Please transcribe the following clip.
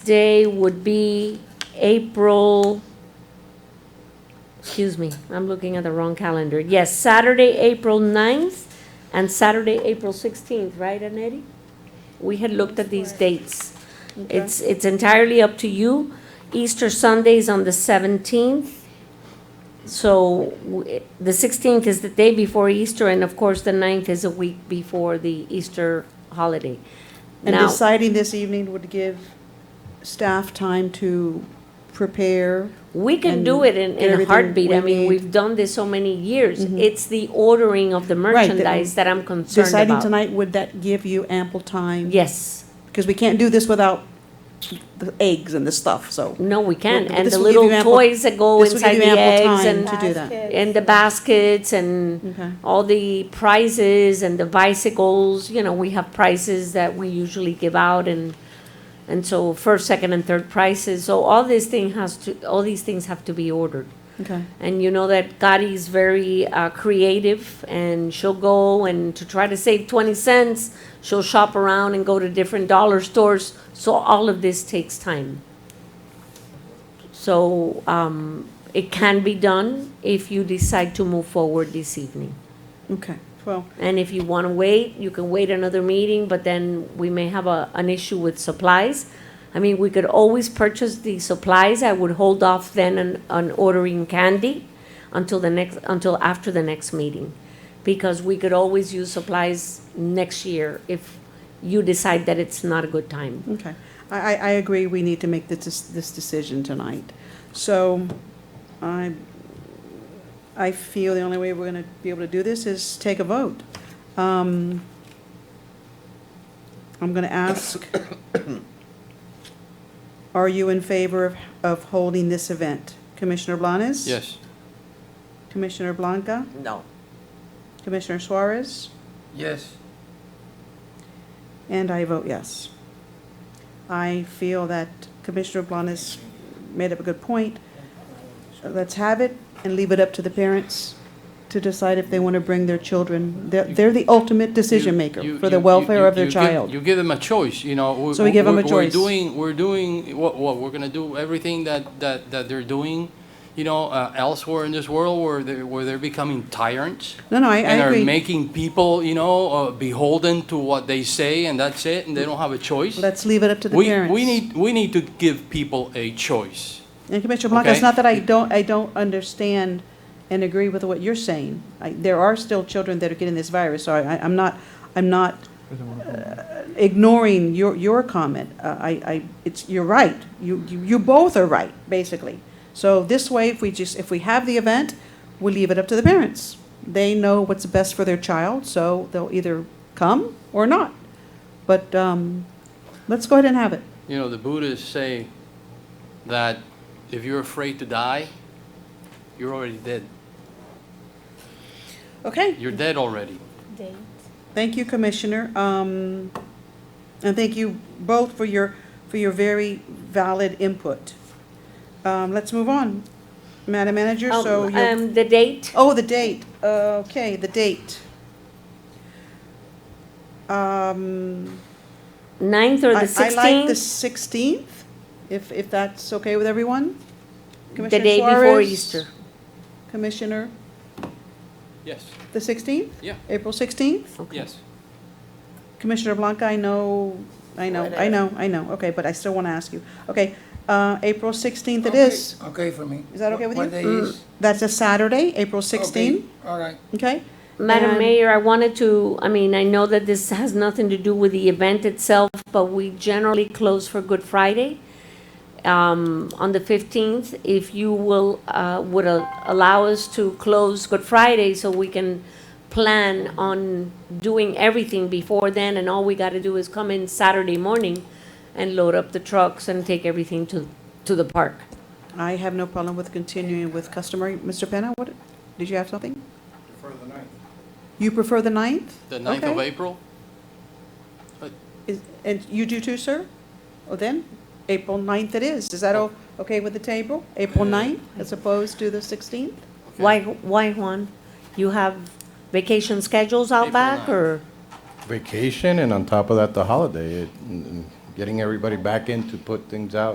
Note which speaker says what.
Speaker 1: day would be April, excuse me, I'm looking at the wrong calendar. Yes, Saturday, April 9th and Saturday, April 16th, right, Annette? We had looked at these dates. It's, it's entirely up to you. Easter Sunday is on the 17th. So w- the 16th is the day before Easter, and of course, the 9th is a week before the Easter holiday.
Speaker 2: And
Speaker 1: Now-
Speaker 2: deciding this evening would give staff time to prepare.
Speaker 1: We can do
Speaker 2: and
Speaker 1: it in,
Speaker 2: get
Speaker 1: in a
Speaker 2: everything
Speaker 1: heartbeat. I mean,
Speaker 2: we need. Mm-hmm.
Speaker 1: we've done this so many years. It's the ordering of the
Speaker 2: that-
Speaker 1: merchandise that I'm concerned
Speaker 2: Deciding
Speaker 1: about.
Speaker 2: tonight, would that give you ample time?
Speaker 1: Yes.
Speaker 2: Because we can't do this without the eggs and the stuff, so.
Speaker 1: No, we can.
Speaker 2: Well,
Speaker 1: And
Speaker 2: this
Speaker 1: the
Speaker 2: will give
Speaker 1: little
Speaker 2: you ample-
Speaker 1: toys that go
Speaker 2: This will
Speaker 1: inside
Speaker 2: give
Speaker 1: the
Speaker 2: you ample
Speaker 1: eggs
Speaker 2: time to
Speaker 1: and,
Speaker 2: do that.
Speaker 3: Basket.
Speaker 1: and the baskets and
Speaker 2: Okay.
Speaker 1: all the prizes and the bicycles. You know, we have prizes that we usually give out and, and so first, second, and third prizes. So all this thing has to, all these things have to be ordered.
Speaker 2: Okay.
Speaker 1: And you know that Gotti is very uh, creative, and she'll go and to try to save 20 cents, she'll shop around and go to different dollar stores. So all of this takes time. So um, it can be done if you decide to move forward this evening.
Speaker 2: Okay, well,
Speaker 1: And if you want to wait, you can wait another meeting, but then we may have a, an issue with supplies. I mean, we could always purchase the supplies. I would hold off then on, on ordering candy until the next, until after the next meeting. Because we could always use supplies next year if you decide that it's not a good time.
Speaker 2: okay. I, I, I agree, we need to make this, this decision tonight. So I, I feel the only way we're gonna be able to do this is take a vote. Um, I'm gonna ask, are you in favor of, of holding this event? Commissioner Blanes?
Speaker 4: Yes.
Speaker 2: Commissioner Blanca?
Speaker 4: No.
Speaker 2: Commissioner Suarez?
Speaker 4: Yes.
Speaker 2: And I vote yes. I feel that Commissioner Blanes made up a good point. Let's have it and leave it up to the parents to decide if they want to bring their children. They're, they're the ultimate decision maker
Speaker 4: You-
Speaker 2: for the
Speaker 4: you-
Speaker 2: welfare
Speaker 4: you-
Speaker 2: of their
Speaker 4: you give-
Speaker 2: child.
Speaker 4: You give them a choice, you know. we-
Speaker 2: So we give them a
Speaker 4: we're-
Speaker 2: choice.
Speaker 4: We're doing, we're doing, what, what, we're gonna do everything that, that, that they're doing, you know, uh, elsewhere in this world where they're, where they're becoming tyrants.
Speaker 2: No, no, I, I
Speaker 4: And are
Speaker 2: agree.
Speaker 4: making people, you know, uh, beholden to what they say and that's it, and they don't have a choice.
Speaker 2: Let's leave it up to the
Speaker 4: We-
Speaker 2: parents.
Speaker 4: We need, we need to give people a choice.
Speaker 2: And Commissioner Blanca, it's
Speaker 4: Okay.
Speaker 2: not that I don't, I don't understand and agree with what you're saying. I- There are still children that are getting this virus, so I, I'm not, I'm not uh, ignoring your, your comment. Uh, I, I, it's, you're right. You, you you both are right, basically. So this way, if we just, if we have the event, we leave it up to the parents. They know what's best for their child, so they'll either come or not. But, um, let's go ahead and have it.
Speaker 4: You know, the Buddhists say that if you're afraid to die, you're already dead.
Speaker 2: Okay.
Speaker 4: You're dead already.
Speaker 3: date.
Speaker 2: Thank you, Commissioner. Um, And thank you both for your, for your very valid input. Um, Let's move on. Madam Manager, so
Speaker 1: Um,
Speaker 2: you,
Speaker 1: um, the date,
Speaker 2: oh, the date. Okay, the date. Um,
Speaker 1: 9th or
Speaker 2: I
Speaker 1: the
Speaker 2: I like the
Speaker 1: 16th,
Speaker 2: 16th, if, if that's okay with everyone?
Speaker 1: the
Speaker 2: Commissioner
Speaker 1: day before
Speaker 2: Suarez,
Speaker 1: Easter.
Speaker 2: Commissioner,
Speaker 4: Yes,
Speaker 2: the 16th?
Speaker 4: yeah,
Speaker 2: April 16th?
Speaker 1: Okay.
Speaker 4: yes.
Speaker 2: Commissioner Blanca, I know, I know, I know, I know, okay, but I still want to ask you. Okay, uh, April 16th it
Speaker 5: Okay,
Speaker 2: is.
Speaker 5: Okay for me.
Speaker 2: Is that okay with
Speaker 5: What-
Speaker 2: you? Mm.
Speaker 5: What day is?
Speaker 2: That's a Saturday, April
Speaker 5: Okay,
Speaker 2: 16th,
Speaker 5: All right.
Speaker 2: okay?
Speaker 1: Madam
Speaker 2: And-
Speaker 1: Mayor, I wanted to, I mean, I know that this has nothing to do with the event itself, but we generally close for Good Friday um, on the 15th. If you will, uh, would a- allow us to close Good Friday so we can plan on doing everything before then, and all we got to do is come in Saturday morning and load up the trucks and take everything to, to the park.
Speaker 2: I have no problem with continuing with customary. Mr. Penna, what, did you have something? You prefer the 9th?
Speaker 4: The 9th of
Speaker 2: Okay.
Speaker 4: April?
Speaker 2: Is- And you do too, sir? Well then, April 9th it is. Is that
Speaker 4: Oh.
Speaker 2: o- okay with the table? April 9th as opposed to the 16th?
Speaker 1: Why, why, Juan? You have vacation schedules out
Speaker 4: April
Speaker 1: back,
Speaker 4: nine.
Speaker 1: or?
Speaker 6: vacation and on top of that the holiday it, mm, getting everybody back in to put things out